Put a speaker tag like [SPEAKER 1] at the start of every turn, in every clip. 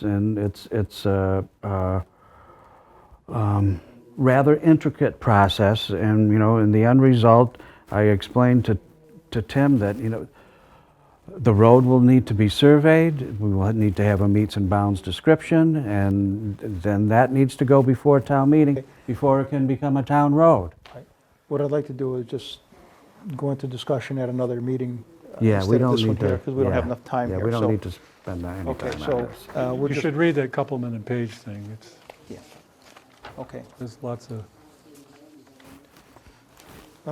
[SPEAKER 1] and it's it's a, a um, rather intricate process. And you know, in the end result, I explained to to Tim that you know the road will need to be surveyed. We will need to have a meets and bounds description, and then that needs to go before town meeting before it can become a town road.
[SPEAKER 2] Right. What I'd like to do is just go into discussion at another meeting. uh,
[SPEAKER 1] Yeah, we
[SPEAKER 2] instead of
[SPEAKER 1] don't
[SPEAKER 2] this one
[SPEAKER 1] need to.
[SPEAKER 2] Because we don't have
[SPEAKER 1] yeah.
[SPEAKER 2] enough time here.
[SPEAKER 1] Yeah, we
[SPEAKER 2] so-
[SPEAKER 1] don't need to spend any time on
[SPEAKER 2] Okay,
[SPEAKER 1] this.
[SPEAKER 2] so uh, we're
[SPEAKER 3] You
[SPEAKER 2] just,
[SPEAKER 3] should read that Coupleman and Page thing. It's,
[SPEAKER 2] okay.
[SPEAKER 3] there's lots of,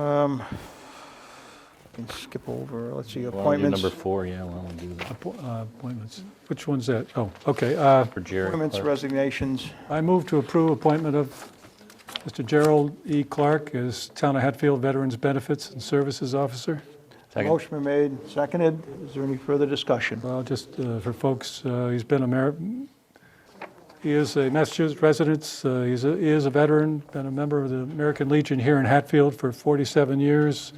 [SPEAKER 2] Um, Can skip over, let's see,
[SPEAKER 4] Well, do
[SPEAKER 2] appointments.
[SPEAKER 4] Number four, yeah, why don't we do that?
[SPEAKER 3] appo- uh, appointments. Which one's that? Oh, okay. uh,
[SPEAKER 4] For Jerry
[SPEAKER 2] Appointments,
[SPEAKER 4] Clark.
[SPEAKER 2] resignations.
[SPEAKER 3] I move to approve appointment of Mr. Gerald E. Clark as Town of Hatfield Veterans Benefits and Services Officer.
[SPEAKER 4] Second.
[SPEAKER 2] Motion been made, seconded. Is there any further discussion?
[SPEAKER 3] Well, just uh, for folks, uh, he's been a mer, he is a Massachusetts resident, uh, he's a, he is a veteran, been a member of the American Legion here in Hatfield for 47 years,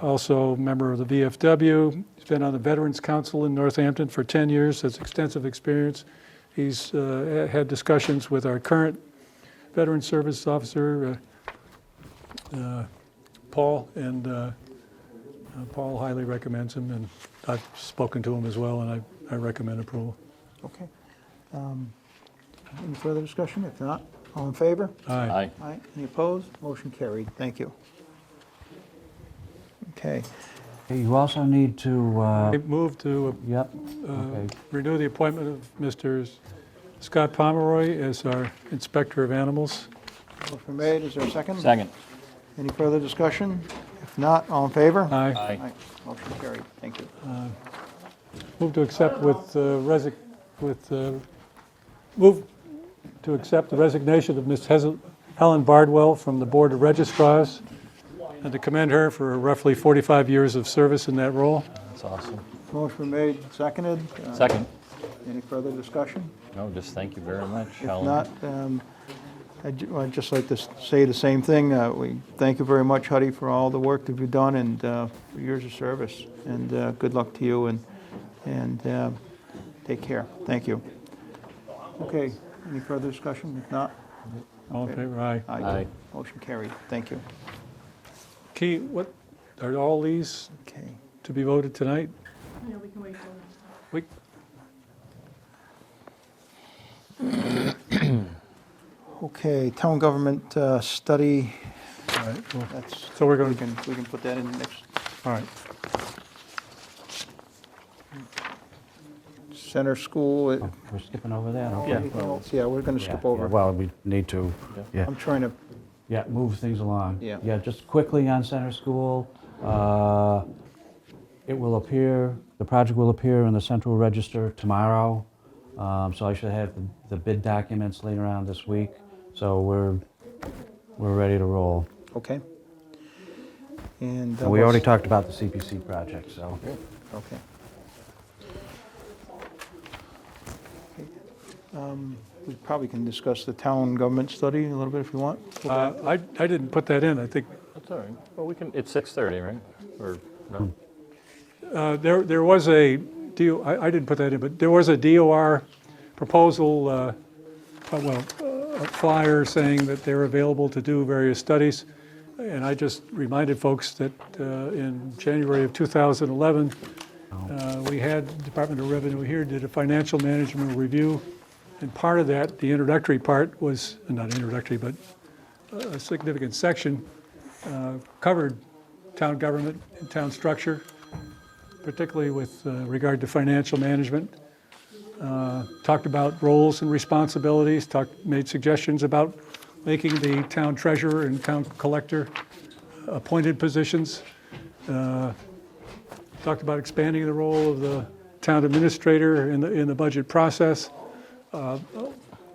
[SPEAKER 3] also a member of the VFW, he's been on the Veterans Council in Northampton for 10 years, has extensive experience. He's uh, had discussions with our current Veteran Service Officer, uh, uh, Paul, and uh, uh, Paul highly recommends him, and I've spoken to him as well, and I, I recommend approval.
[SPEAKER 2] Okay. Um, Any further discussion? If not, all in favor?
[SPEAKER 3] Aye.
[SPEAKER 4] Aye.
[SPEAKER 2] All right, any opposed? Motion carried, thank you. Okay,
[SPEAKER 1] You also need to, uh,
[SPEAKER 3] I move to
[SPEAKER 1] yep,
[SPEAKER 3] uh,
[SPEAKER 1] okay.
[SPEAKER 3] renew the appointment of Mr. Scott Pomeroy as our Inspector of Animals.
[SPEAKER 2] motion made, is there a second?
[SPEAKER 4] Second.
[SPEAKER 2] Any further discussion? If not, all in favor?
[SPEAKER 3] Aye.
[SPEAKER 2] All
[SPEAKER 4] Aye.
[SPEAKER 2] right, motion carried, thank you.
[SPEAKER 3] Move to accept with, uh, resig, with, uh, move to accept the resignation of Ms. Hes- Helen Bardwell from the Board of Registrars, and to commend her for roughly 45 years of service in that role.
[SPEAKER 4] That's awesome.
[SPEAKER 2] Motion made, seconded. Uh,
[SPEAKER 4] Second.
[SPEAKER 2] Any further discussion?
[SPEAKER 4] No, just thank you very much,
[SPEAKER 2] If
[SPEAKER 4] Helen.
[SPEAKER 2] not, um, I'd ju- I'd just like to s- say the same thing. Uh, We thank you very much, Huddy, for all the work that you've done and uh, for years of service. And uh, good luck to you and, and uh, take care. Thank you. Okay, any further discussion? If not,
[SPEAKER 3] All in favor? Aye.
[SPEAKER 4] Aye.
[SPEAKER 2] Motion carried. Thank you.
[SPEAKER 3] Key, what, are all these
[SPEAKER 2] Okay.
[SPEAKER 3] to be voted tonight? Yeah, we can
[SPEAKER 2] Okay, town government uh, study,
[SPEAKER 3] wait. All right, well,
[SPEAKER 2] that's,
[SPEAKER 3] so we're
[SPEAKER 2] we
[SPEAKER 3] going to,
[SPEAKER 2] can, we can put that in next,
[SPEAKER 3] all right.
[SPEAKER 2] center school. it-
[SPEAKER 1] We're skipping over that, okay.
[SPEAKER 2] anything else? Yeah, we're going to
[SPEAKER 1] Yeah,
[SPEAKER 2] skip
[SPEAKER 1] yeah,
[SPEAKER 2] over.
[SPEAKER 1] Well, we need to, yeah,
[SPEAKER 2] I'm trying to
[SPEAKER 1] yeah, move things along.
[SPEAKER 2] Yeah.
[SPEAKER 1] Yeah, just quickly on Center School, uh, it will appear, the project will appear in the Central Register tomorrow, um, so I should have the- the bid documents later on this week, so we're, we're ready to roll.
[SPEAKER 2] Okay. And. that
[SPEAKER 1] And we already
[SPEAKER 2] was-
[SPEAKER 1] talked about the CPC project, so.
[SPEAKER 2] Okay. Um, We probably can discuss the town government study a little bit if you want.
[SPEAKER 3] Uh, I, I didn't put that in, I think,
[SPEAKER 4] That's all right. Well, we can, it's 6:30, right? Or, no?
[SPEAKER 3] uh, there, there was a, DO I, I didn't put that in, but there was a DOR proposal, uh, uh, well, uh, a flyer saying that they're available to do various studies. And I just reminded folks that uh, in January of 2011, uh, we had Department of Revenue here did a financial management review. And part of that, the introductory part was, not introductory, but a significant section uh, covered town government and town structure, particularly with uh, regard to financial management. Uh, Talked about roles and responsibilities, talked, made suggestions about making the town treasurer and town collector appointed positions. Uh, Talked about expanding the role of the town administrator in the, in the budget process. Uh,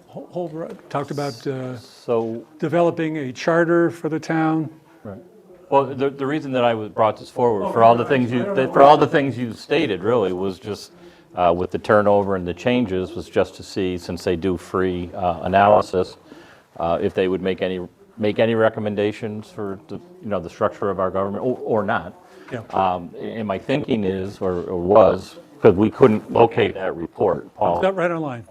[SPEAKER 3] whole- whole- Talked about uh,
[SPEAKER 4] So,
[SPEAKER 3] developing a charter for the town.
[SPEAKER 4] right. Well, the, the reason that I was- brought this forward, for all the things you, that- for all the things you stated, really, was just uh, with the turnover and the changes, was just to see, since they do free uh, analysis, uh, if they would make any, make any recommendations for, the you know, the structure of our government, or or not.
[SPEAKER 3] Yeah.
[SPEAKER 4] Um, And my thinking is, or or was, because we couldn't locate that report, Paul.
[SPEAKER 3] Is that right online?